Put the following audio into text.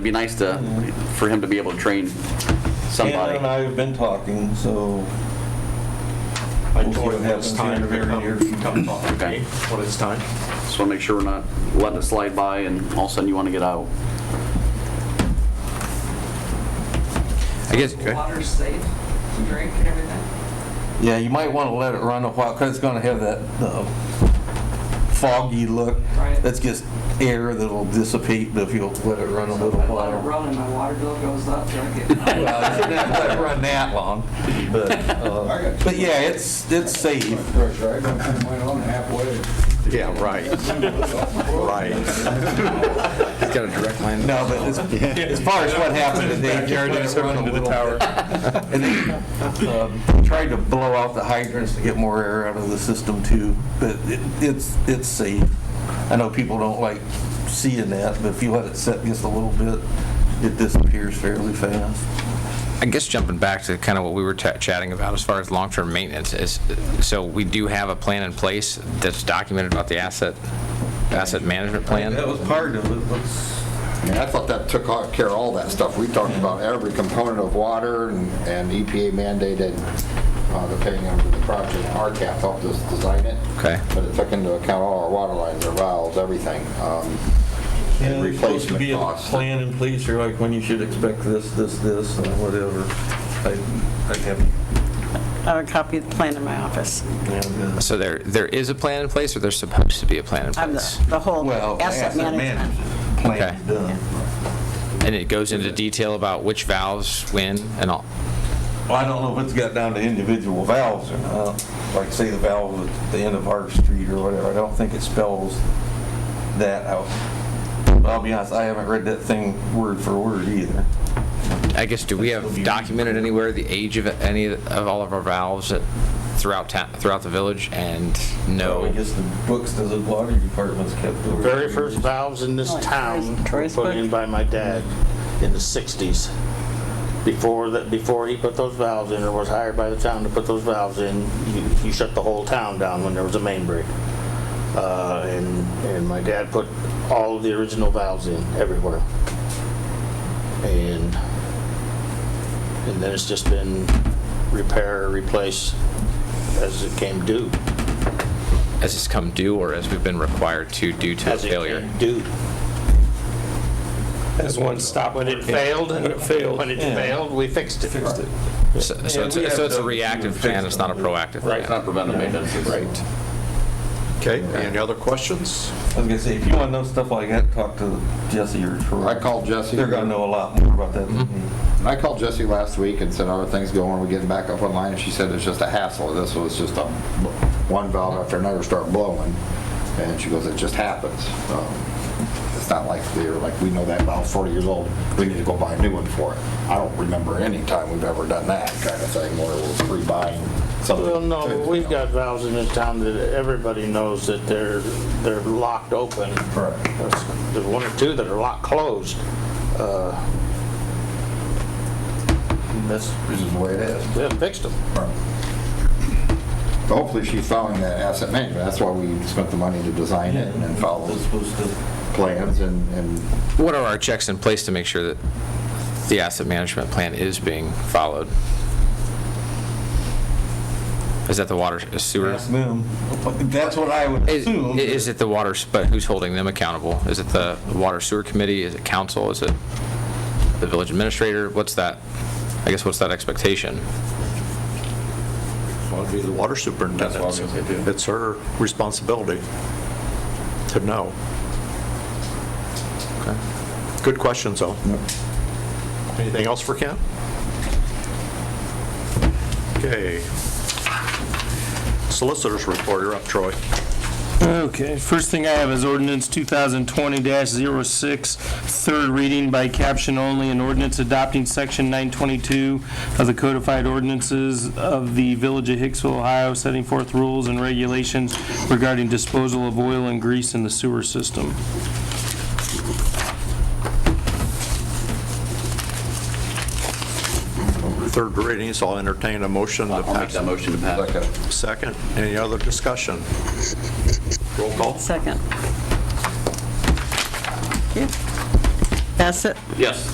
It'd be nice to, for him to be able to train Anna and somebody. I have been talking, so I We'll see told what him happens it's time here to very near come, come talk to Okay. me when it's time. Just want to make sure we're not letting it slide by and all of a sudden you want to get out. I guess, Water's safe to drink and everything. yeah, you might want to let it run a while because it's going to have that uh, foggy look. Right. That's just air that'll dissipate if you'll let it run a So if little I let it while. run and my water bill goes up, do I get? Well, you shouldn't have to let it run that long, but, uh, but yeah, it's, it's safe. pressure, I don't think mine on halfway. yeah, right, right. He's got a direct line. No, but as, as far as what happened today, just let it run a little bit. And they um, tried to blow out the hydrants to get more air out of the system too, but it- it's, it's safe. I know people don't like seeing that, but if you let it set just a little bit, it disappears fairly fast. I guess jumping back to kind of what we were ta- chatting about as far as long-term maintenance is, so we do have a plan in place that's documented about the asset, asset management That plan? was part of it, let's, And I thought that took all- care of all that stuff. We talked about every component of water and and EPA mandated, uh, depending on the project, RCAP helped us design it. Okay. But it took into account all our water lines, our valves, everything. um, Yeah, And there's supposed to replacement be a costs. plan in place, or like when you should expect this, this, this, and whatever. I, I haven't, I have a copy of the plan in my office. yeah, So there, there is a plan in place, or there's supposed to be a plan in I have place? the- the whole Well, asset management. plan's Okay. done. And it goes into detail about which valves, when, and all? Well, I don't know if it's got down to individual valves or not, like say the valve at the end of our street or whatever, I don't think it spells that out. But I'll be honest, I haven't read that thing word for word either. I guess, do we That'll have be- documented anywhere the age of any of all of our valves at- throughout town, throughout the village, and no? I guess the books that the water department's kept over. Very first valves in this Like town were Troy's put book? in by my dad in the 60s. Before that, before he put those valves in, or was hired by the town to put those valves in, you- you shut the whole town down when there was a main break. Uh, And, and my dad put all of the original valves in everywhere. And, and then it's just been repair, replace as it came due. as it's come due or as we've been required to due to as it failure? came due. As one stopped When it working. failed, When it failed. When it Yeah. failed, we fixed it. Fixed it. So so it's, we have so it's a to- reactive plan, it's not a proactive It's not plan. preventive maintenance. it's- Right. Okay. Any other questions? I was gonna say, if you wanna know stuff like that, talk to Jesse or Troy. I called Jesse. They're gonna know a lot more about that than Mm-hmm. me. I called Jesse last week and said, "Are things going? Are we getting back up online?" And she said, "It's just a hassle. This was just a one valve after another start blowing." And she goes, "It just happens. Um, It's not like they're like, we know that valve's 40 years old. We need to go buy a new one for it." I don't remember any time we've ever done that kind of thing where we're pre-buying something. Well, no, but we've got valves in this town that everybody knows that they're, they're locked open. Correct. There's there's one or two that are locked closed. Uh, That's, This is the way it is. we haven't fixed them. Hopefully, she's following that asset management. That's why we spent the money to design it and follow They're those supposed to. plans and and What are our checks in place to make sure that the asset management plan is being followed? Is that the water uh, sewer? Ask them. That's what I would Is, assume. is it the water, s- but who's holding them accountable? Is it the water sewer committee? Is it council? Is it the village administrator? What's that, I guess, what's that expectation? Well, it'd be the water That's what I was gonna say, too. superintendent. It's her responsibility to know. Good questions, though. Anything else for Ken? Okay. Solicitors report, you're up, Troy. Okay, first thing I have is ordinance 2020-06, third reading by caption only, an ordinance adopting section 922 of the codified ordinances of the Village of Hicksville, Ohio, setting forth rules and regulations regarding disposal of oil and grease in the sewer system. Third reading, so I'll entertain a motion to I'll make that pass. motion to pass. like a Second, any other discussion? Roll call. Second. Bassett? Yes.